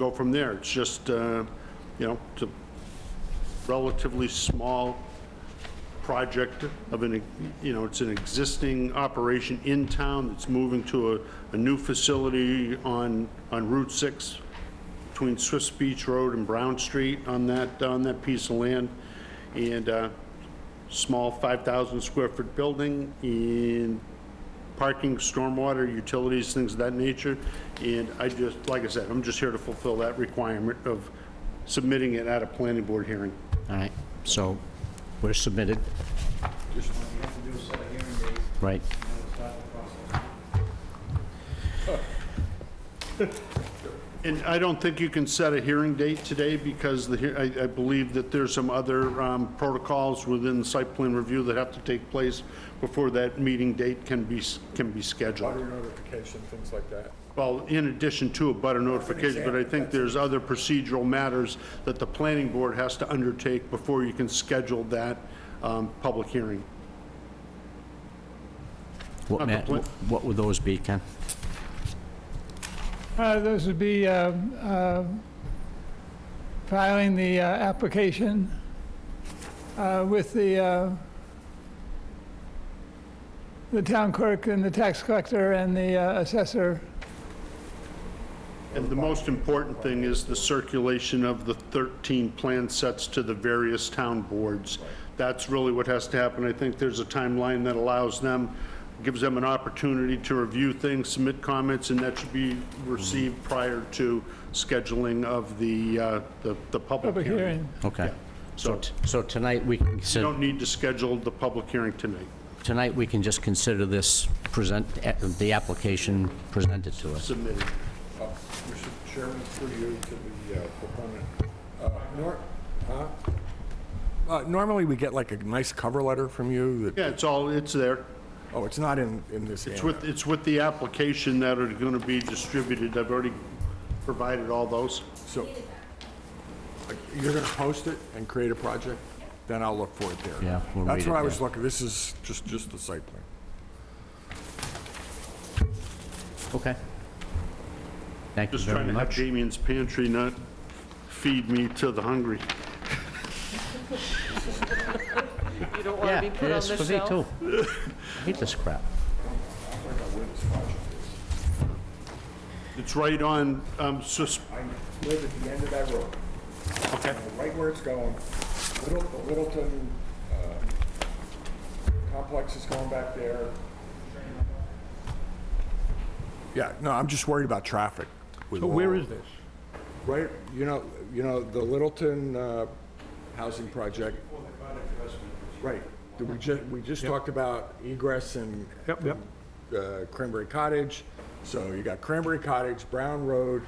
go from there. It's just, uh, you know, it's a relatively small project of an, you know, it's an existing operation in town that's moving to a, a new facility on, on Route 6 between Swiss Beach Road and Brown Street on that, on that piece of land. And, uh, small 5,000 square foot building and parking, stormwater, utilities, things of that nature. And I just, like I said, I'm just here to fulfill that requirement of submitting it at a planning board hearing. All right, so we're submitted, You have to do a set of hearing dates, right? and then we'll start the process. And I don't think you can set a hearing date today because the, hea- I, I believe that there's some other um, protocols within site plan review that have to take place before that meeting date can be, s- can be scheduled. Butter notification, things like that. Well, in addition to a butter notification, but I think there's other procedural matters that the planning board has to undertake before you can schedule that um, public hearing. What Not ma- complete. what would those be, Ken? Uh, This would be uh, uh, filing the uh, application uh, with the, uh, the town clerk and the tax collector and the uh, assessor. And the most important thing is the circulation of the 13 plan sets to the various town boards. That's really what has to happen. I think there's a timeline that allows them, gives them an opportunity to review things, submit comments, and that should be received prior to scheduling of the, uh, the, the public Public hearing. hearing. Okay. So, So t- so tonight, we can, you consider. don't need to schedule the public hearing tonight. tonight, we can just consider this present, eh, the application presented to us. Submitted. Uh, Mr. Chairman, through you to the uh, proponent. Uh, nor- huh? Uh, Normally, we get like a nice cover letter from you that, Yeah, it's all, it's there. oh, it's not in, in this It's annex. with, it's with the application that are going to be distributed. I've already provided all those. So, like, you're going to post it and create a project? Then I'll look for it there. Yeah, we'll read That's it, what I yeah. was looking, this is just, just the site plan. Okay. Thank you Just trying very to have much. Damien's pantry not feed me to the hungry. You don't want Yeah, to be put on it's the for me shelf. too. I Hate this crap. It's right on, um, Swiss, I live at the end of that road, Uh, okay, right where it's going. Little, the Littleton, uh, complex is going back there. Yeah, no, I'm just worried about traffic. with So all where of is this? Right, you know, you know, the Littleton uh, Housing Project. Right, Did we just, we just talked about egress and. Yep, yep. uh, Cranberry Cottage, so you got Cranberry Cottage, Brown Road,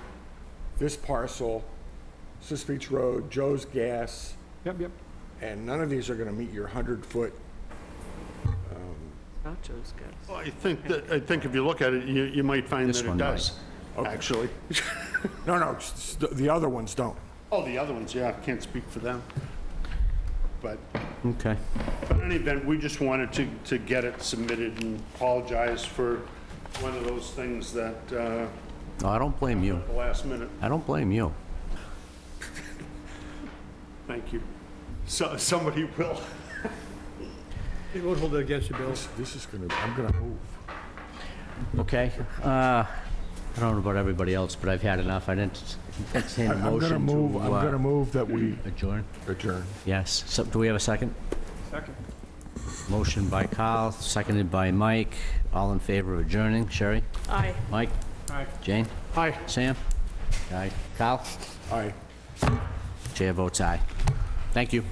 this parcel, Sis Beach Road, Joe's Gas, Yep, yep. and none of these are gonna meet your hundred-foot. Nachos, guys. I think that, I think if you look at it, you, you might find This that it one does, actually. No, no, s- s- the other ones don't. Oh, the other ones, yeah, I can't speak for them. But, Okay. but in any event, we just wanted to, to get it submitted and apologize for one of those things that, uh, No, I don't blame you. at the last minute. I don't blame you. Thank you. So, somebody will. It will hold it against you, Bill. This this is gonna, I'm gonna move. Okay, uh, I don't know about everybody else, but I've had enough. I didn't entertain a I'm motion to... gonna move, I'm uh, gonna move that we Adjourn? adjourn. Yes. So, do we have a second? Second. Motion by Kyle, seconded by Mike. All in favor of adjourning? Sherry? Aye. Mike? Aye. Jane? Aye. Sam? Aye. Kyle? Aye. Chair votes aye. Thank you.